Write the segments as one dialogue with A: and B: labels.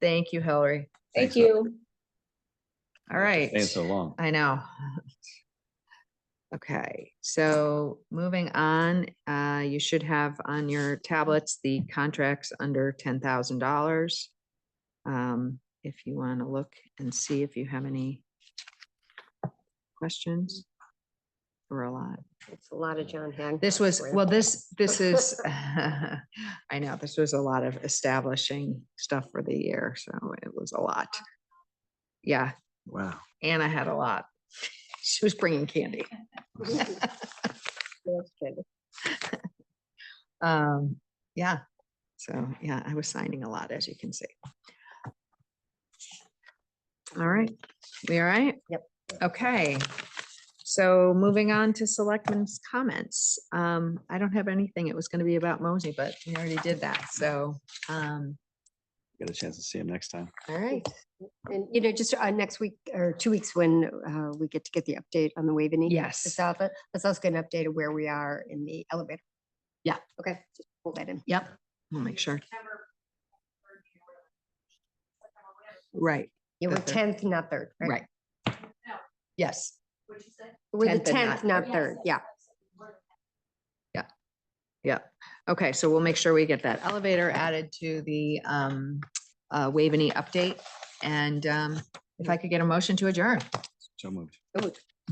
A: Thank you, Hillary.
B: Thank
C: Thanks for-
B: you.
A: All right.
C: Staying so long.
A: I know. Okay, so moving on, uh, you should have on your tablets the contracts under ten thousand dollars. Um, if you want to look and see if you have any questions. Or a lot.
D: It's a lot of John Hancock.
A: This was,
D: for you.
A: well, this, this is, I know, this was a lot of establishing stuff for the year, so it was a lot. Yeah,
C: Wow.
A: Anna had a lot. She was bringing candy.
D: That's good.
A: Um, yeah, so, yeah, I was signing a lot, as you can see. All right, we all right?
D: Yep.
A: Okay, so moving on to selectmen's comments. Um, I don't have anything. It was gonna be about Mosey, but we already did that, so, um,
C: Get a chance to see him next time.
A: all right.
D: And, you know, just uh, next week or two weeks when uh, we get to get the update on the Waveney.
A: Yes.
D: It's out, but let's also get an update of where we are in the elevator.
A: Yeah.
D: Okay, just hold that in.
A: Yep, we'll make sure. Right,
D: You were
A: The third.
D: tenth, not third, right?
A: right. Yes,
D: We're the
A: 10th and not
D: tenth, not third, yeah.
A: yeah. Okay, so we'll make sure we get that elevator added to the um uh Waveney update. And um if I could get a motion to adjourn,
C: So moved.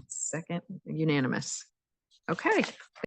A: second unanimous. Okay.